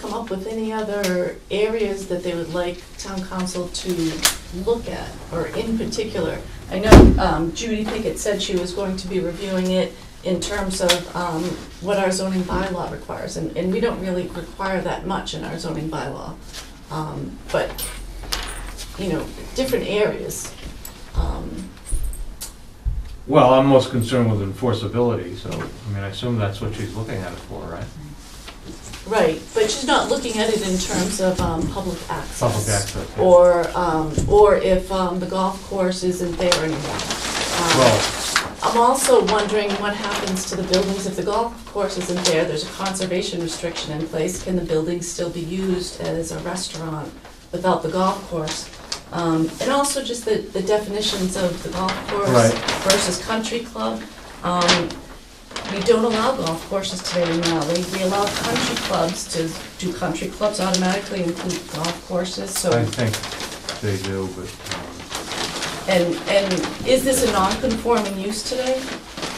come up with any other areas that they would like town council to look at, or in particular? I know um, Judy Pickett said she was going to be reviewing it in terms of um, what our zoning bylaw requires, and, and we don't really require that much in our zoning bylaw. Um, But, you know, different areas. Um, Well, I'm most concerned with enforceability, so, I mean, I assume that's what she's looking at it for, right? Right, but she's not looking at it in terms of um, public access. Public access. yeah. Or, um, or if um, the golf course isn't there anymore. Um, Well, I'm also wondering what happens to the buildings if the golf course isn't there, there's a conservation restriction in place, can the building still be used as a restaurant without the golf course? Um, and also just the, the definitions of the golf course Right. versus country club. Um, we don't allow golf courses today anymore, we, we allow country clubs to, do country clubs automatically include golf courses, so. I think they do, but, um, And, and is this a non-conforming use today?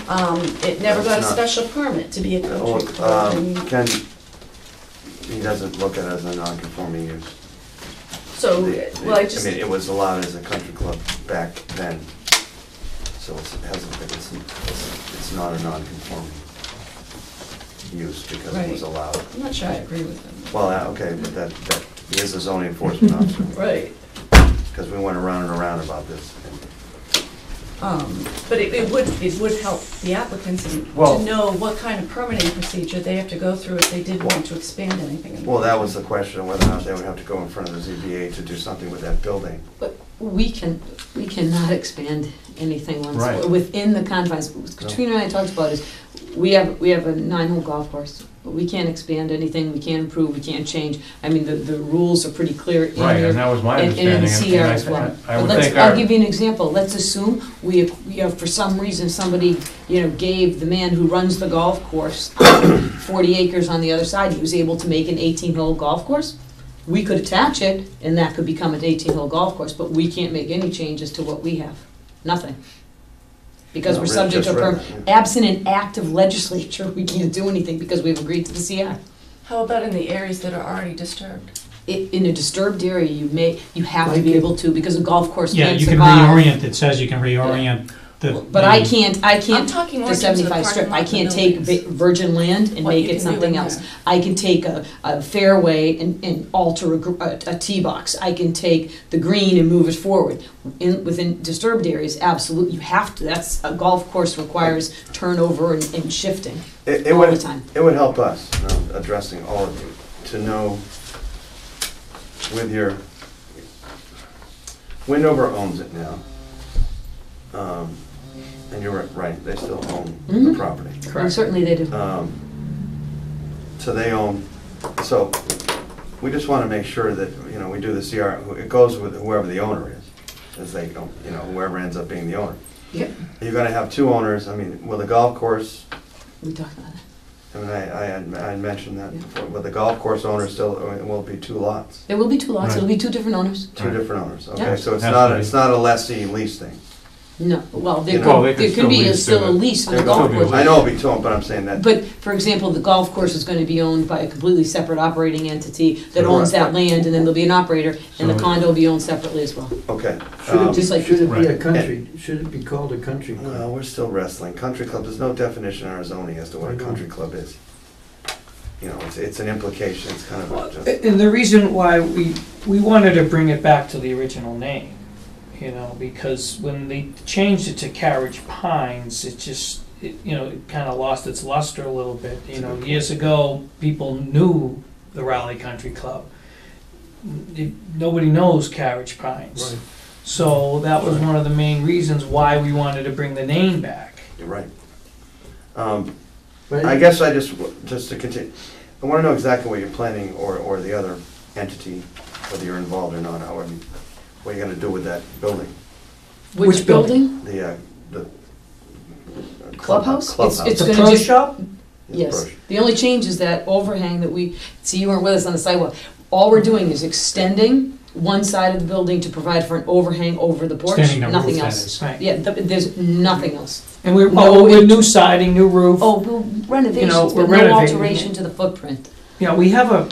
Um, it never got a It's not. special permit to be a Oh, country club, um, and Ken, he doesn't look at it as a non-conforming use. so, well, I just, mean, it was allowed as a country club back then, so it's- it hasn't been, it's, it's it's not a non-conforming use because it was Right. allowed. I'm not sure I agree with him. Well, uh, okay, but that, that, he is a zoning enforcement officer, Right, because we went around and around about this. um, but it, it would, it would help the applicants in- Well- to know what kind of permitting procedure they have to go through if they did want to expand anything. in- Well, that was the question, whether or not they would have to go in front of the ZBA to do something with that building. But we can, we cannot expand anything once, Right. within the confines. What Katrina and I talked about is, we have, we have a nine-hole golf course. but We can't expand anything, we can't improve, we can't change. I mean, the, the rules are pretty clear in right, there. and that was my And- understanding. And in and- CR and I- as well. I But would let's, think I'll our- give you an example, let's assume we, you know, for some reason, somebody, you know, gave the man who runs the golf course forty acres on the other side, he was able to make an eighteen-hole golf course. We could attach it, and that could become an eighteen-hole golf course, but we can't make any changes to what we have, nothing. Because No, we're Rick subject to, just read per- that, absent an act of legislature, we can't do anything because we've agreed to the CI. How about in the areas that are already disturbed? i- in a disturbed area, you may, you have to be able to, because a golf course Yeah, can't you can survive. reorient, it says you can reorient the. But I can't, I I'm can't, talking more the in terms of the seventy-five strip, parking lot I and can't the take buildings. vi- virgin land and What make you can it do something in else. there. I can take a, a fairway and, and alter a, gr- a, a tee box. I can take the green and move it forward. In, within disturbed areas, absolutely, you have to, that's, a golf course requires turnover and, and shifting It, it all the would, time. It would help us, um, addressing all of you, to know with your, Windover owns it now. Um, And you're right, they still own the Mhm. property. And certainly they do. Um, So they own, so we just want to make sure that, you know, we do the CR, it goes with whoever the owner is, as they, go, you know, whoever ends up being the owner. Yep. You're gonna have two owners, I mean, will the golf course We talked about that. I mean, I, I had, I had mentioned that Yeah. before, but the golf course owner still, uh, it will be two lots, There will be two lots, Right. it'll be two different owners. two Right. different owners, Yeah. okay? So it's Has not, to be. it's not a lessee lease thing. No, well, there Well, they could, could there still could be a- lease still to a the- lease on There the could golf be a course. I know it'll be two, but I'm saying that, But, for example, the golf course is gonna be owned by a completely separate operating entity that owns that land, and then there'll be an operator, and the So- condo will be owned separately as well. okay. Should it um, Just be, like- should it be a Right. country, should it be called a country Well, club? we're still wrestling. Country club, there's no definition in our zoning as to what a country club is. You know, it's, it's an implication, it's kind of a just, And the reason why we, we wanted to bring it back to the original name, you know, because when they changed it to Carriage Pines, it just, it, you know, it kind of lost its luster a little bit. You know, years ago, people knew the Raleigh Country Club. It- Nobody knows Carriage Pines. Right. So that was one of the main reasons why we wanted to bring the name back. you're right. Um, But I guess I just, just to continue, I want to know exactly what you're planning or, or the other entity, whether you're involved or not, however, you- what you're gonna do with that building, Which building? the, uh, the. uh, club- Clubhouse? It's, Clubhouse. it's The gonna pro just, shop? yes. The only change is that overhang that we, see, you weren't with us on the sidewalk. All we're doing is extending one side of the building to provide for an overhang over the porch, Standing number nothing of else. Right. Yeah, th- there's nothing else. And we're, No, no, we're it- new siding, new roof. Oh, well, renovations, we're but no renovating it. alteration to the footprint. Yeah, we have a,